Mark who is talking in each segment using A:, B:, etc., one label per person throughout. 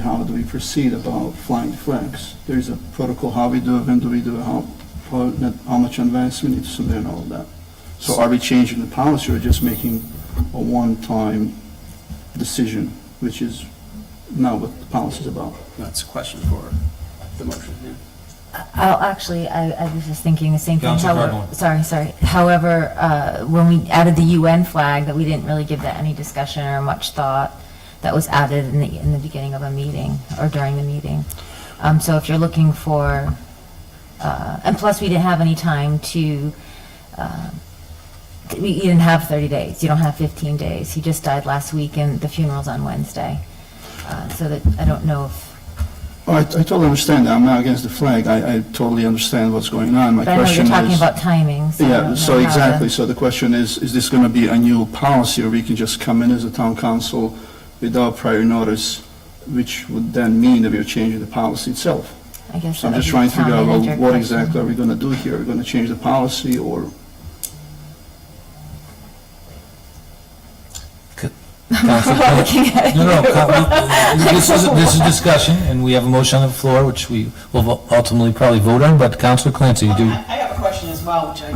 A: how do we proceed about flying flags? There is a protocol, how we do it, when do we do it, how, how how much advance we need to submit and all that. So are we changing the policy or just making a one-time decision, which is not what the policy is about?
B: That's a question for the motion, yeah.
C: Oh, actually, I, I was just thinking the same thing.
D: Councilor
C: However-
D: Cardinal.
C: Sorry, sorry. However, uh, when we added the UN flag, that we didn't really give that any discussion or much thought. That was added in the, in the beginning of a meeting or during the meeting. Um, so if you're looking for, uh, and plus we didn't have any time to, uh, we, you didn't have thirty days. You don't have fifteen days. He just died last week and the funeral's on Wednesday. Uh, so that, I don't know if,
A: Oh, I I totally understand that, I'm not against the flag, I I totally understand what's going on, my
C: but I know
A: question
C: you're
A: is...
C: talking about timing, so uh, I don't
A: Yeah,
C: know
A: so
C: how to-
A: exactly, so the question is, is this going to be a new policy, or we can just come in as a town council without prior notice, which would then mean that we're changing the policy itself?
C: I guess
A: So I'm
C: that
A: just
C: would be
A: trying to figure
C: town
A: out, well,
C: manager
A: what
C: question.
A: exactly are we going to do here? Are we going to change the policy, or,
D: Council-
C: We're all looking at it.
D: No, no, co- we- this is, this is discussion, and we have a motion on the floor, which we will vo- ultimately probably vote on, but Councilor Clancy, you
E: Well,
D: do,
E: I I have a question as well, which I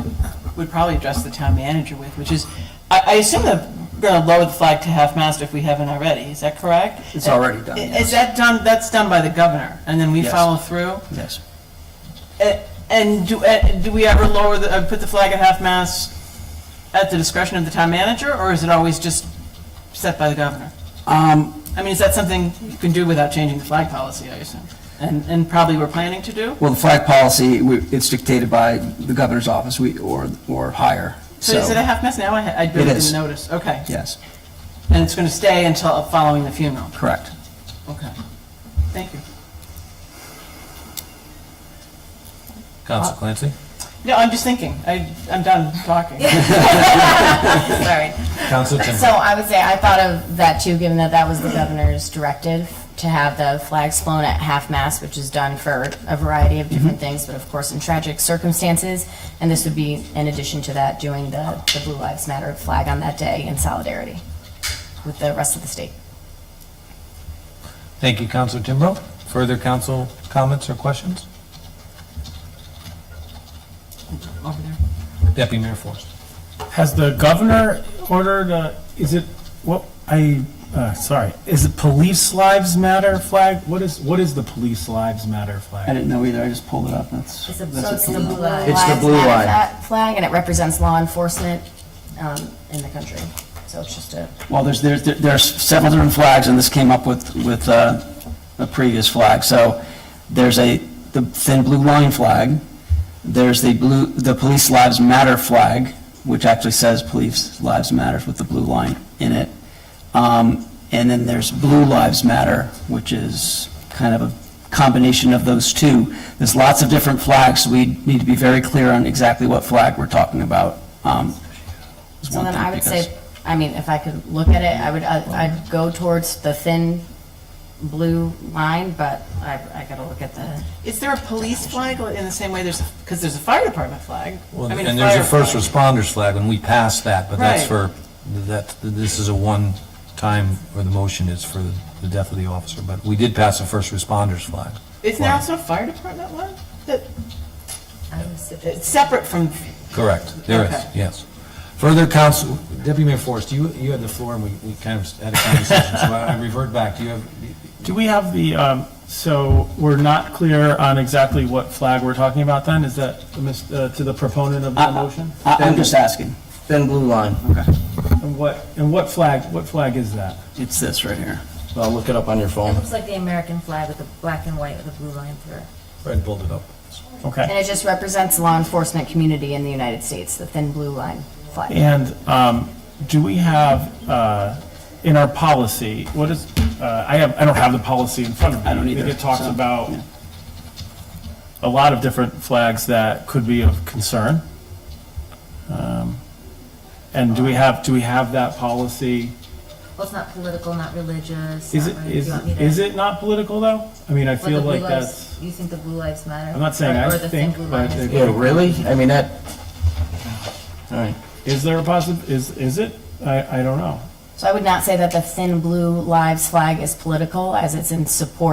E: would probably address the town manager with, which is, I, I assume that we're gonna lower the flag to half-mast if we haven't already, is that correct?
B: It's already done,
E: Is-
B: yes.
E: Is that done, that's done by the governor, and then we
B: Yes.
E: follow through?
B: Yes.
E: A- And do, uh, do we ever lower the, uh, put the flag at half-mast at the discretion of the town manager, or is it always just set by the governor?
B: Um,
E: I mean, is that something you can do without changing the flag policy, I assume? And, and probably we're planning to do?
B: well, the flag policy, we- it's dictated by the governor's office, we, or, or higher,
E: So is it a
B: so,
E: half-mast now? I ha- I
B: It
E: didn't
B: is.
E: even notice, okay.
B: yes,
E: And it's going to stay until uh, following the funeral?
B: correct.
E: Okay. Thank you.
D: Councilor Clancy?
E: No, I'm just thinking. I, I'm done talking.
F: Sorry.
D: Councilor
F: So
D: Timbrow?
F: I would say, I thought of that too, given that that was the governor's directive to have the flags flown at half-mast, which is done for a variety of different things, but of course in tragic circumstances. And this would be, in addition to that, doing the, the Blue Lives Matter flag on that day in solidarity with the rest of the state.
D: Thank you, Councilor Timbrow. Further council comments or questions?
E: Over there.
D: Deputy Mayor Forrest.
G: Has the governor ordered, a- is it, what, I, uh, sorry, is it Police Lives Matter flag? What is, what is the Police Lives Matter
B: I
G: flag?
B: didn't know either, I just pulled it up, that's.
C: It's a-
B: that's
C: so
B: it.
C: it's the blue line.
B: It's the blue
F: Lives Matter
B: line.
F: fa- Flag, and it represents law enforcement, um, in the country. So it's just a,
B: Well, there's, there's, there's several different flags, and this came up with, with uh, a previous flag. So there's a, the thin blue line flag, there's the blue, the Police Lives Matter flag, which actually says Police Lives Matters with the blue line in it. Um, And then there's Blue Lives Matter, which is kind of a combination of those two. There's lots of different flags, we need to be very clear on exactly what flag we're talking about. um, is
F: So
B: one
F: then
B: thing,
F: I would
B: because-
F: say, I mean, if I could look at it, I would, uh, I'd I'd go towards the thin blue line, but I, I gotta look at the,
E: Is there a police flag in the same way there's, because there's a fire department flag?
D: Well,
E: I mean,
D: And there's a
E: fire
D: first
E: flag.
D: responders flag, and we passed that, but that's for,
E: Right.
D: that, this is a one-time, or the motion is for the death of the officer, but we did pass a first responders flag.
E: Isn't there also a fire department one? That,
C: I was suggesting-
E: it's separate from,
D: Correct, there is,
E: Okay.
D: yes. Further council, Deputy Mayor Forrest, you, you had the floor, and we, we kind of had a conversation, so I I revert back, do you have,
G: Do we have the, um, so we're not clear on exactly what flag we're talking about then? Is that the mis- uh, to the proponent of the
B: I-
G: motion?
B: I- I'm just asking. Thin blue line. Okay.
G: And what, and what flag, what flag is that?
B: It's this right here.
H: Well, look it up on your
C: It
H: phone.
C: looks like the American flag with the black and white with a blue line through it.
D: Fred pulled it up.
G: Okay.
F: and it just represents law enforcement community in the United States, the thin blue line flag.
G: And um, do we have, uh, in our policy, what is, uh, I have, I don't have the policy in front of me.
B: I don't either,
G: I think it talks
B: so,
G: about
B: yeah.
G: a lot of different flags that could be of concern. Um, And do we have, do we have that policy?
C: Well, it's not political, not religious.
G: Is
C: not
G: it,
C: really-
G: is,
C: do you want me to-
G: is it not political, though? I mean, I
C: What, the
G: feel
C: blue
G: like
C: lives-
G: that's,
C: You think the blue lives matter?
G: I'm not saying
C: Or-
G: I
C: or the thin
G: think,
C: blue
G: but
C: line is
G: the-
C: blue?
H: Yeah, really? I mean, that, all right.
G: is there a possi, is, is it? I, I don't know.
F: So I would not say that the thin blue lives flag is political, as it's in support